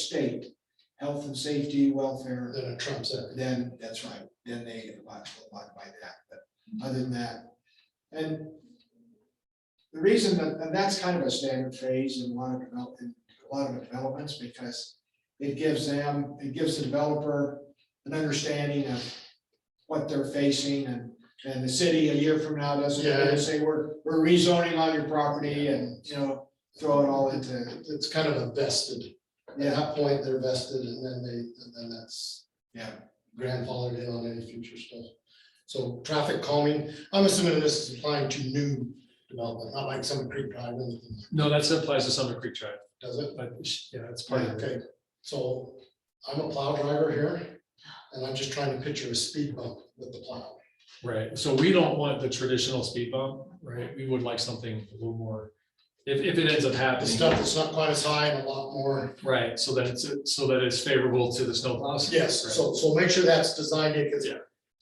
state, health and safety, welfare, Then it trumps everything. then, that's right, then they abide abide by that, but other than that, and the reason that, and that's kind of a standard phrase in a lot of develop, in a lot of developments, because it gives them, it gives the developer an understanding of what they're facing, and, and the city a year from now doesn't come in and say, we're, we're rezoning on your property, and, you know, throw it all into, It's kind of a vested, at yeah, that point, they're vested and then they, and then that's yeah. grandfathered in on any future stuff. So traffic calming, I'm assuming this is applying to new development, not like some creek drive, or anything, No, that still applies to Summit Creek Drive, does it? but sh- yeah, it's part of it. Okay, so I'm a plow driver here and I'm just trying to picture a speed bump with the plow. Right, so we don't want the traditional speed bump, right? We would like something a little more, if, if it ends up The happening, stuff that's not quite as high and a lot more right? So that it's, so that it's favorable to the snowplows. Yes, so, so make sure that's designed in, because Yeah.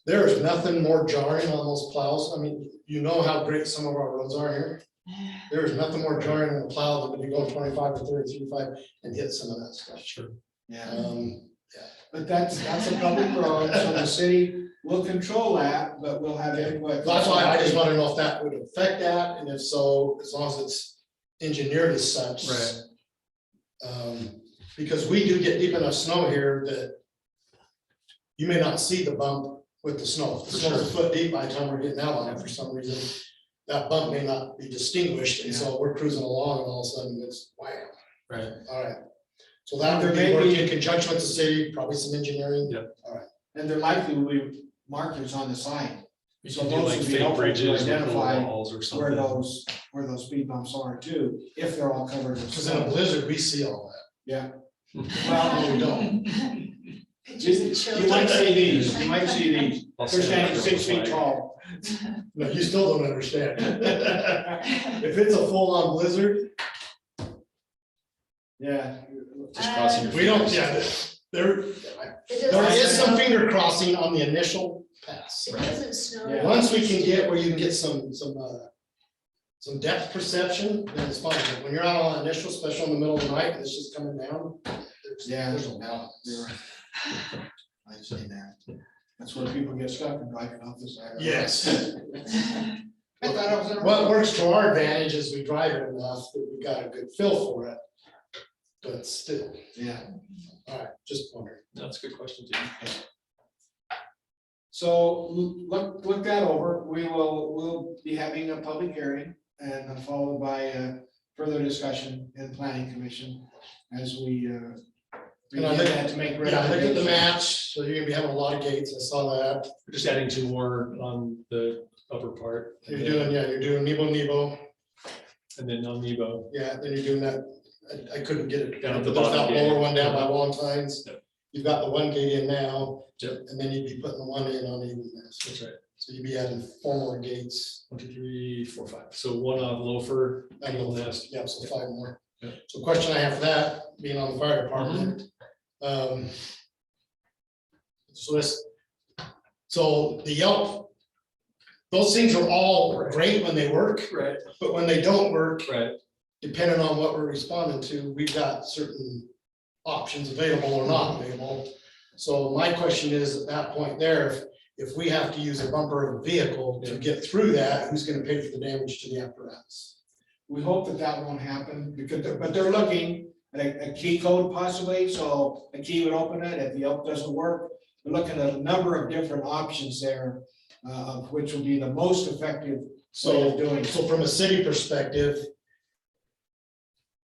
there is nothing more jarring on those plows. I mean, you know how great some of our roads are here. There is nothing more jarring on a plow than when you go twenty-five to thirty, thirty-five and hit some of that stuff. Sure, Yeah. Um, But that's, that's a public road, so the city will control that, but we'll have input. That's why I just want to know if that would affect that, and if so, as long as it's engineered as such. Right. Um, because we do get deep enough snow here that you may not see the bump with the snow. If the For snow's a sure. foot deep by the time we're getting out on it for some reason, that bump may not be distinguished, and so we're cruising along and all of a sudden it's wham, right. all right. So that would There be may working be- in conjunction with the city, probably some engineering. Yeah. And there likely will be markers on the sign We So can do those like would be fake helpful to bridges with little identify walls or where something. those, where those speed bumps are too, if they're all covered with Because in a snow. blizzard, we see all that. Yeah. No, Well, we don't. you might see these, you might see these, I'll they're stand standing under six the feet flag. tall. No, you still don't understand. If it's a full-on blizzard, Yeah, Uh, Just crossing your we don't, fingers. yeah, there, there is some finger crossing on the initial pass. It doesn't snow. Yeah. Once we can get where you can get some, some, uh, some depth perception, then it's fine, but when you're out on initial, especially in the middle of the night, and it's just coming down. there's- Yeah. There's a balance. you're right. I see that. That's where people get stuck and drive off the side. of the road. Yes. I thought I was in a- What works to our advantage is we drive it enough that we got a good feel for it. But still, Yeah. all right, just wondering. That's a good question, Dean. So l- look, look that over. We will, we'll be having a public hearing and then followed by uh, further discussion in planning commission as we uh, And I begin think- that to make Yeah, look at the recommendations. match, so you're gonna be having a lot of gates, I saw that, We're Just adding two more on the upper part. and you're then- doing, yeah, you're doing Nebo Nebo, And then on Nebo, yeah, then you're doing that, I, I couldn't get it. Down at the There's bottom That gate. lower one down by Valentine's, Yep. you've got the one gate in now, Yep. and then you'd be putting the one in on even this, that's right, so you'd be adding four more gates. one, two, three, four, five. So one on Loafer, And Eagle the- Nest, Yeah, so five more. Yep. So question I have for that, being on the fire department, Mm-hmm. um. So this, so the Yelp, those things are all great when they work. right, But when they don't work, right, depending on what we're responding to, we've got certain options available or not available. So my question is, at that point there, if, if we have to use a bumper of a vehicle to Yeah. get through that, who's gonna pay for the damage to the apparatus? We hope that that won't happen because, they're- but they're looking at a, a key code possibly, so a key would open it. If the help doesn't work, we're looking at a number of different options there, uh, of which will be the most effective way of So, doing. it. so from a city perspective,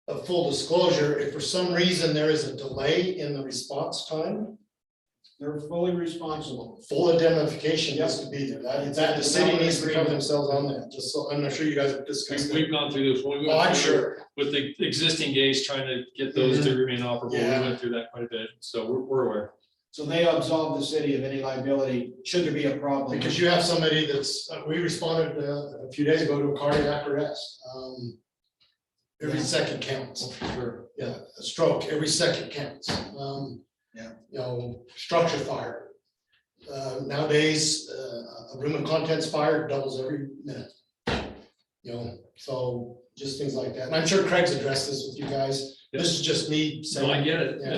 a full disclosure, if for some reason there is a delay in the response time, They're fully responsible. full indemnification has to be there. That, that, the city needs to cover themselves on that, just so, I'm not sure you guys have discussed We've- that. We've gone through this. when we Oh, went I'm through- sure. With the existing gates, trying to get those to remain operable, we Yeah. went through that quite a bit, so we're, we're aware. So they absolve the city of any liability, should there be a problem. Because you have somebody that's, uh, we responded uh, a few days ago to a cardiac arrest. um, Every Yeah. second counts, Sure. yeah, a stroke, every second counts. um, Yeah. You know, structure fire. Uh, Nowadays, uh, a room and contents fire doubles every minute. You know, so just things like that. And I'm sure Craig's addressed this with you guys. This is just me No, I saying, get it. Yeah.